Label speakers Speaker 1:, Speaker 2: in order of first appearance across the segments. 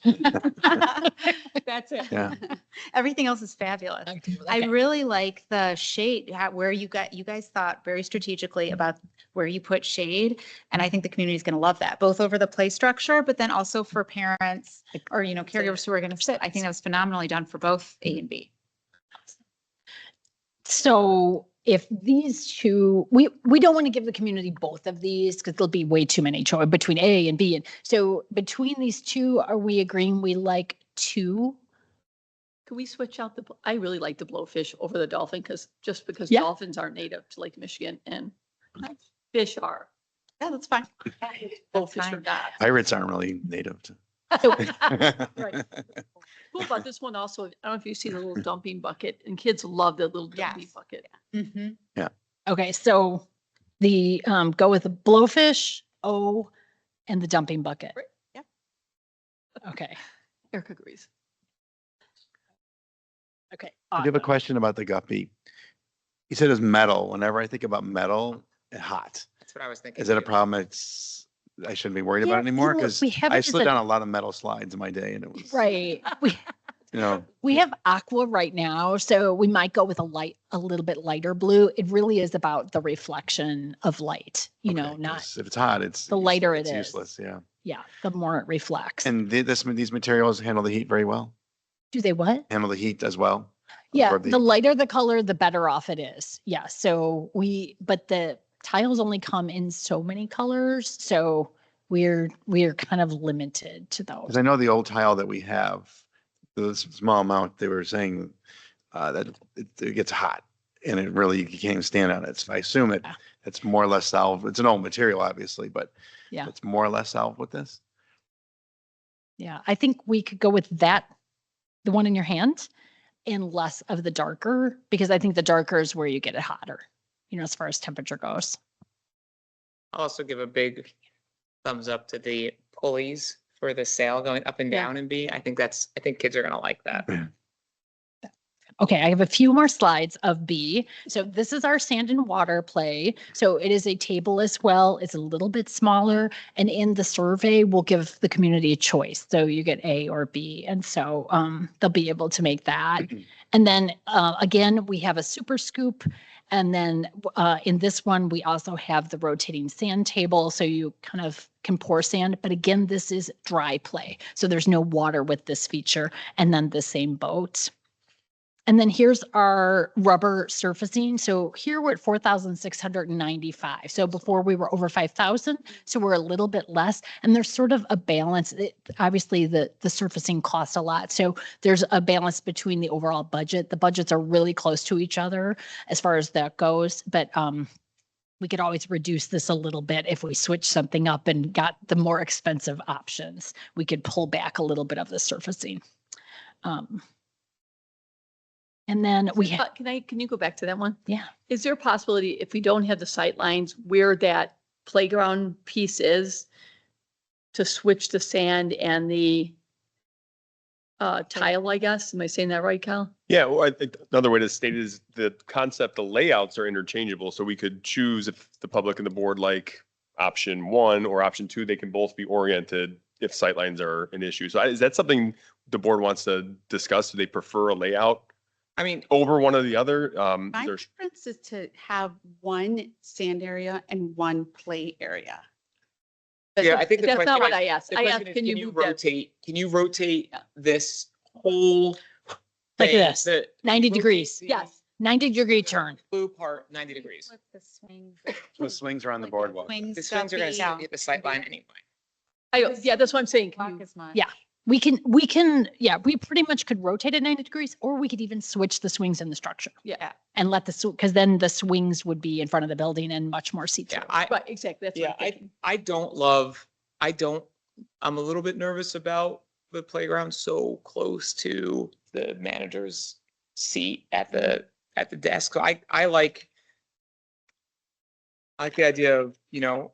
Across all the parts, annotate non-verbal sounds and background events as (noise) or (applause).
Speaker 1: (laughs)
Speaker 2: That's it.
Speaker 3: Yeah.
Speaker 1: Everything else is fabulous. I
Speaker 2: I
Speaker 1: really like the shade, how- where you got, you guys thought very strategically about where you put shade. And I think the community is going to love that, both over the play structure, but then also for parents or, you know, caregivers who are going to sit. I think that was phenomenally done for both A and B.
Speaker 2: So if these two, we, we don't want to give the community both of these because there'll be way too many choice between A and B. And so between these two, are we agreeing we like two?
Speaker 4: Can we switch out the, bl- I really like the blowfish over the dolphin because, just because
Speaker 2: Yeah.
Speaker 4: dolphins aren't native to Lake Michigan and fish are.
Speaker 1: Yeah, that's fine.
Speaker 4: Blowfish are
Speaker 1: fine.
Speaker 4: not.
Speaker 3: Pirates aren't really native to.
Speaker 2: So (laughs)
Speaker 3: (laughs)
Speaker 4: Right. Cool about this one also, I don't know if you see the little dumping bucket and kids love that little dumping
Speaker 1: Yes.
Speaker 4: bucket.
Speaker 1: Mhm.
Speaker 2: Okay, so the, um, go with the blowfish, O, and the dumping bucket.
Speaker 4: Right,
Speaker 1: yeah.
Speaker 2: Okay,
Speaker 4: Erica agrees.
Speaker 2: okay.
Speaker 3: I do have a
Speaker 2: awesome.
Speaker 3: question about the guppy. You said it's metal. Whenever I think about metal, it's hot.
Speaker 5: That's what I was thinking.
Speaker 3: Is it a
Speaker 5: too.
Speaker 3: problem? It's, I shouldn't be worried
Speaker 2: Yeah,
Speaker 3: about it
Speaker 2: you
Speaker 3: anymore
Speaker 2: know,
Speaker 3: because
Speaker 2: we have
Speaker 3: I
Speaker 2: it as
Speaker 3: slid
Speaker 2: a-
Speaker 3: down a lot of metal slides in my day and it was,
Speaker 2: (laughs) Right, we,
Speaker 3: you know,
Speaker 2: we have aqua right now, so we might go with a light, a little bit lighter blue. It really is about the reflection of light, you
Speaker 3: okay,
Speaker 2: know, not,
Speaker 3: 'cause If it's hot, it's.
Speaker 2: the
Speaker 3: use-
Speaker 2: lighter it
Speaker 3: it's
Speaker 2: is.
Speaker 3: Useless, yeah.
Speaker 2: yeah, the more it reflects.
Speaker 3: And thi- this, these materials handle the heat very well,
Speaker 2: Do they what?
Speaker 3: handle the heat as well.
Speaker 2: Yeah,
Speaker 3: absorb the
Speaker 2: the
Speaker 3: heat.
Speaker 2: lighter the color, the better off it is. Yeah, so we, but the tiles only come in so many colors, so we're, we're kind of limited to
Speaker 3: Because
Speaker 2: those.
Speaker 3: I know the old tile that we have, the s- small amount, they were saying uh, that it it gets hot and it really, you can't even stand on it. So I assume it,
Speaker 2: Yeah.
Speaker 3: it's more or less solved. It's an old material, obviously, but
Speaker 2: Yeah.
Speaker 3: it's more or less solved with this.
Speaker 2: Yeah, I think we could go with that, the one in your hand, and less of the darker, because I think the darker is where you get it hotter, you know, as far as temperature goes.
Speaker 5: I'll Also give a big thumbs up to the pulleys for the sail going up and
Speaker 4: Yeah.
Speaker 5: down and B. I think that's, I think kids are gonna like that.
Speaker 2: Okay, I have a few more slides of B. So this is our sand and water play. So it is a table as well. It's a little bit smaller. And in the survey, we'll give the community a choice. So you get A or B. And so um, they'll be able to make that. And then uh, again, we have a super scoop. And then uh, in this one, we also have the rotating sand table. So you kind of can pour sand. But again, this is dry play. So there's no water with this feature. And then the same boat. And then here's our rubber surfacing. So here we're at four thousand six hundred and ninety-five. So before we were over five thousand, so we're a little bit less. And there's sort of a balance. It- obviously, the the surfacing costs a lot, so there's a balance between the overall budget. The budgets are really close to each other as far as that goes, but um, we could always reduce this a little bit if we switch something up and got the more expensive options. We could pull back a little bit of the surfacing. Um, and then we have.
Speaker 4: Uh, Can I, can you go back to that one?
Speaker 2: Yeah.
Speaker 4: Is there a possibility if we don't have the sight lines where that playground piece is to switch the sand and the uh, tile, I guess? Am I saying that right, Kyle?
Speaker 6: Yeah, well, I think another way to state it is the concept, the layouts are interchangeable, so we could choose if the public and the board like option one or option two, they can both be oriented if sightlines are an issue. So I- is that something the board wants to discuss? Do they prefer a layout
Speaker 5: I mean,
Speaker 6: over one or the other? Um,
Speaker 7: My
Speaker 6: there's,
Speaker 7: preference is to have one sand area and one play area.
Speaker 4: But
Speaker 5: Yeah, I think the
Speaker 4: That's not
Speaker 5: question-
Speaker 4: what I asked.
Speaker 5: the
Speaker 4: I asked,
Speaker 5: question is,
Speaker 4: can you move that?
Speaker 5: rotate, can you rotate
Speaker 4: Yeah.
Speaker 5: this whole?
Speaker 2: Like
Speaker 5: thing,
Speaker 2: this,
Speaker 5: the-
Speaker 2: 90
Speaker 5: rotate
Speaker 2: degrees.
Speaker 5: the
Speaker 4: Yes.
Speaker 2: 90 degree turn.
Speaker 5: Blue part ninety degrees.
Speaker 1: With the swing- (laughs)
Speaker 3: The swings are on the
Speaker 1: like
Speaker 3: boardwalk.
Speaker 1: swings
Speaker 5: The swings are gonna
Speaker 1: guppy.
Speaker 5: sit at the sight line anyway.
Speaker 4: I, don't- yeah, that's what I'm saying. Can
Speaker 1: Walk
Speaker 4: you-
Speaker 1: as much.
Speaker 2: Yeah. We can, we can, yeah, we pretty much could rotate at 90 degrees or we could even switch the swings in the structure.
Speaker 4: Yeah.
Speaker 2: And let the, because then the swings would be in front of the building and much more see through.
Speaker 5: Yeah, I,
Speaker 4: Right, exactly. That's what
Speaker 5: Yeah,
Speaker 4: I'm
Speaker 5: I,
Speaker 4: thinking.
Speaker 5: I don't love, I don't, I'm a little bit nervous about the playground so close to the manager's seat at the, at the desk. So I, I like, I like the idea of, you know,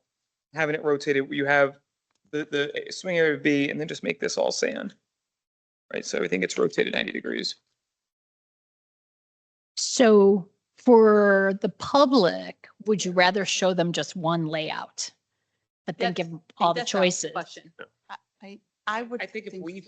Speaker 5: having it rotated, you have the, the swing area would be, and then just make this all sand. Right, so everything gets rotated ninety degrees.
Speaker 2: So for the public, would you rather show them just one layout? But then
Speaker 4: That's-
Speaker 2: give 'em all the
Speaker 4: That's not a
Speaker 2: choices?
Speaker 4: Question.
Speaker 7: I would.
Speaker 5: I think if we